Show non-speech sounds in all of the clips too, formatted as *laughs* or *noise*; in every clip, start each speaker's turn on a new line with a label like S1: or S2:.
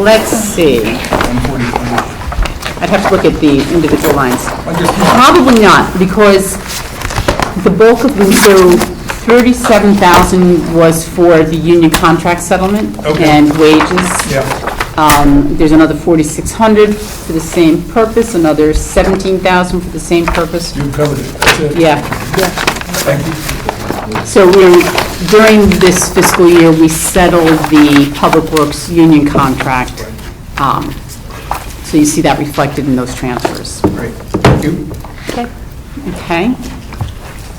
S1: let's see. I'd have to look at the individual lines. Probably not, because the bulk of, the- so 37,000 was for the union contract settlement
S2: Okay.
S1: and wages.
S2: Yeah.
S1: Um, There's another 4,600 for the same purpose, another 17,000 for the same purpose.
S2: You covered it, that's it.
S1: Yeah.
S2: Thank you.
S1: So we're, during this fiscal year, we settled the Public Works union contract. Um, So you see that reflected in those transfers.
S2: Great, thank you.
S1: Okay?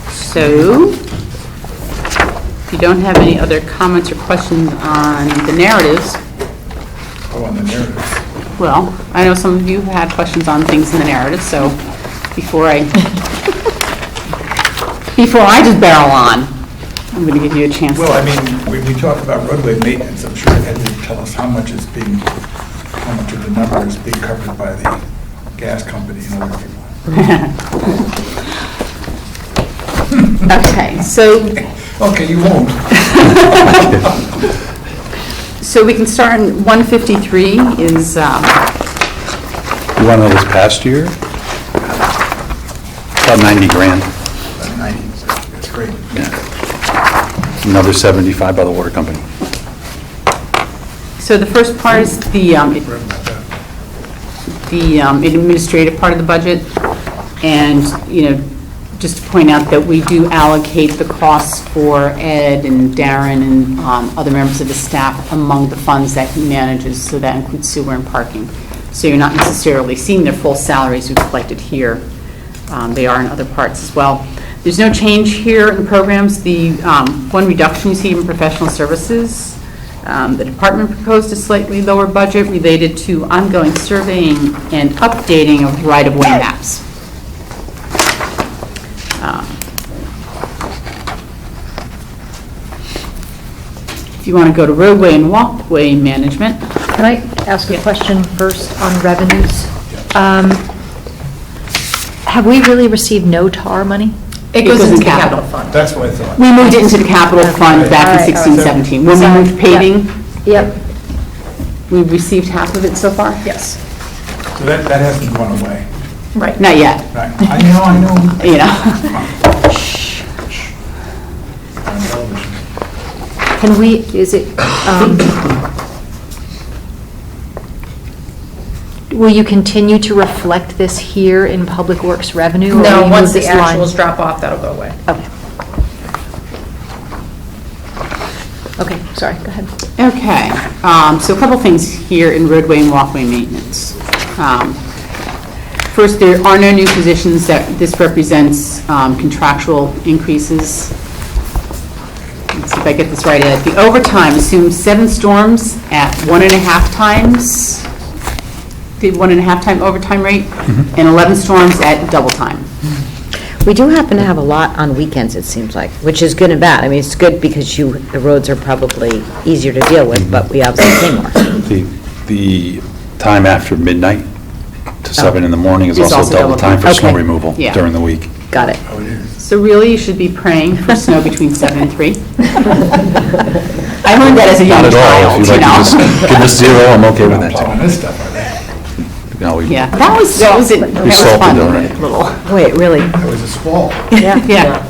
S1: So, if you don't have any other comments or questions on the narratives,
S2: Oh, on the narrative.
S1: well, I know some of you had questions on things in the narrative, so before I, *laughs* before I just barrel on, I'm going to give you a chance. to-
S2: Well, I mean, when we talk about roadway maintenance, I'm sure Ed would tell us how much is being, how much of the number is being covered by the gas company and other people.
S1: Okay, so
S2: Okay, you won't.
S1: So we can start in 153 is, um,
S3: You want to know this past year? About 90 grand,
S2: About Ninety, that's great.
S3: another 75 by the water company.
S1: so the first part is the, um,
S2: Right about that.
S1: the um, administrative part of the budget. And, you know, just to point out that we do allocate the costs for Ed and Darren and um, other members of the staff among the funds that he manages, so that includes sewer and parking. So you're not necessarily seeing their full salaries reflected here. Um, They are in other parts as well. There's no change here in programs. The um, one reduction you see in professional services, um, The department proposed a slightly lower budget related to ongoing surveying and updating of right-of-way maps. Um, If you want to go to roadway and walkway management,
S4: Can I ask a question first on revenues? Um, Have we really received no TAR money?
S1: It goes into capital
S4: fund.
S2: That's what I thought.
S1: we moved it into the capital fund back in
S4: Alright, alright.
S1: sixteen seventeen. When we
S4: Sorry,
S1: moved paving,
S4: Yep,
S1: we received half of it so far?
S4: yes,
S2: So that, that hasn't gone away.
S4: right.
S1: Not yet,
S2: Right. I know, I know.
S1: you know.
S2: On television.
S4: Can we, is it, um, will you continue to reflect this here in Public Works revenue? or
S5: *laughs*
S4: will
S5: No,
S4: you
S5: once
S4: move
S5: the
S4: this line?
S5: actuals drop off, that'll go away.
S4: Okay. Okay, sorry, go ahead.
S1: Okay, um, so a couple things here in roadway and walkway maintenance. Um, First, there are no new positions that, this represents um, contractual increases. Let's see if I get this right, Ed. The overtime assumes seven storms at one and a half times, the one and a half time overtime rate, and 11 storms at double time.
S6: We do happen to have a lot on weekends, it seems like, which is good and bad. I mean, it's good because you, the roads are probably easier to deal with, but we obviously pay more.
S3: The, the time after midnight to 7 in the morning is
S1: It's
S3: also double time for snow
S6: Okay.
S3: removal
S1: Yeah.
S3: during the week.
S6: Got it.
S1: So really, you should be praying for snow between seven and three. I learned that as a young
S3: Not at all,
S1: child,
S3: if
S1: you
S3: you'd like
S1: know?
S3: to just give us zero, I'm okay with
S2: Not *laughs* plowing
S3: that.
S2: this stuff, are they?
S3: too. No, we-
S1: Yeah, that was, that was, it- that was
S3: salted
S1: fun,
S3: already.
S1: little,
S6: Wait, really?
S2: That was a squall.
S1: *laughs* yeah.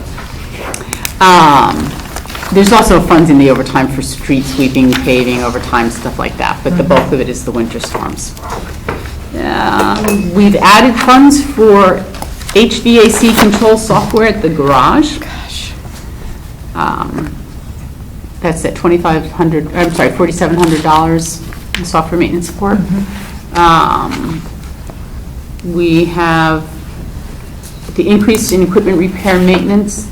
S1: Um, There's also funds in the overtime for street sweeping, paving, overtime, stuff like that, but the bulk of it is the winter storms. Um, We've added funds for HVAC control software at the garage. Gosh. That's at 2,500, I'm sorry, $4,700 in software maintenance support. Um, We have the increase in equipment repair maintenance.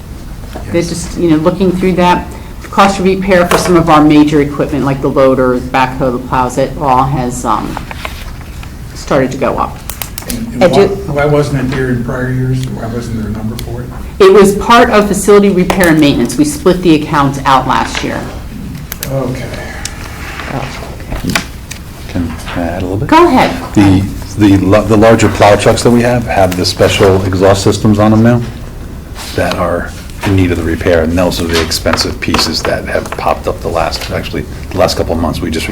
S1: They're just, you know, looking through that. The Cost of repair for some of our major equipment, like the loader, backhoe, the plows, it all has um, started to go up.
S2: And why-
S6: I do-
S2: Why wasn't it there in prior years? Why wasn't there a number for it?
S1: It was part of facility repair and maintenance. We split the accounts out last year.
S2: Okay.
S3: Can I add a little bit?
S1: Go ahead.
S3: The, the la- the larger plow trucks that we have have the special exhaust systems on them now that are in need of the repair, and those are the expensive pieces that have popped up the last, actually, the last couple of months. We just